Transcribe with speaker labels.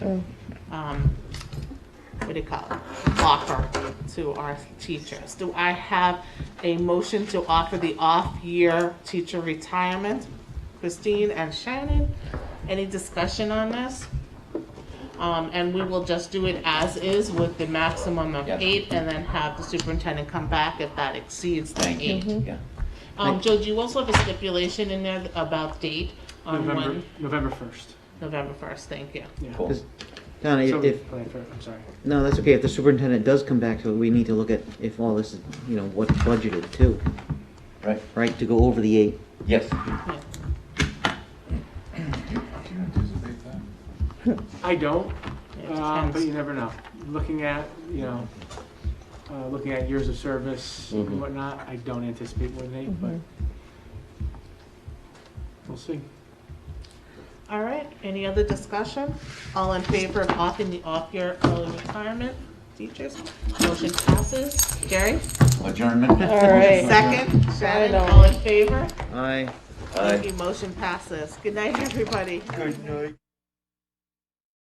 Speaker 1: um, what do you call it, offer to our teachers. Do I have a motion to offer the off-year teacher retirement? Christine and Shannon, any discussion on this? Um, and we will just do it as is with the maximum of
Speaker 2: Yeah.
Speaker 1: eight and then have the superintendent come back if that exceeds the
Speaker 2: Thank
Speaker 1: eight.
Speaker 3: Mm-hmm.
Speaker 2: you, yeah.
Speaker 1: Um, Joe, do you also have a stipulation in there about date on
Speaker 4: November,
Speaker 1: when?
Speaker 4: November first.
Speaker 1: November first, thank you.
Speaker 4: Yeah.
Speaker 2: Cool.
Speaker 5: Does-
Speaker 1: Uh,
Speaker 5: Donna,
Speaker 4: So,
Speaker 5: if, if-
Speaker 4: plan for- I'm sorry.
Speaker 5: no, that's okay, if the superintendent does come back, so we need to look at if all this is, you know, what's budgeted too,
Speaker 2: Right,
Speaker 5: right, to go over the eight.
Speaker 2: yes.
Speaker 1: Yeah.
Speaker 6: Do you anticipate that?
Speaker 4: I don't,
Speaker 1: It
Speaker 4: uh, but
Speaker 1: depends.
Speaker 4: you never know. Looking at, you know, uh, looking at years of service
Speaker 2: Mhm.
Speaker 1: Mm-hmm.
Speaker 4: and whatnot, I don't anticipate more than eight, but
Speaker 1: Mm-hmm.
Speaker 4: we'll see.
Speaker 1: All right, any other discussion? All in favor of offering the off-year early retirement teachers? Motion passes. Gary?
Speaker 2: Adjournment?
Speaker 3: All right.
Speaker 1: Second. Shannon, all in favor?
Speaker 5: Aye.
Speaker 2: Aye.
Speaker 1: Thank you, motion passes. Good night, everybody.
Speaker 6: Good night.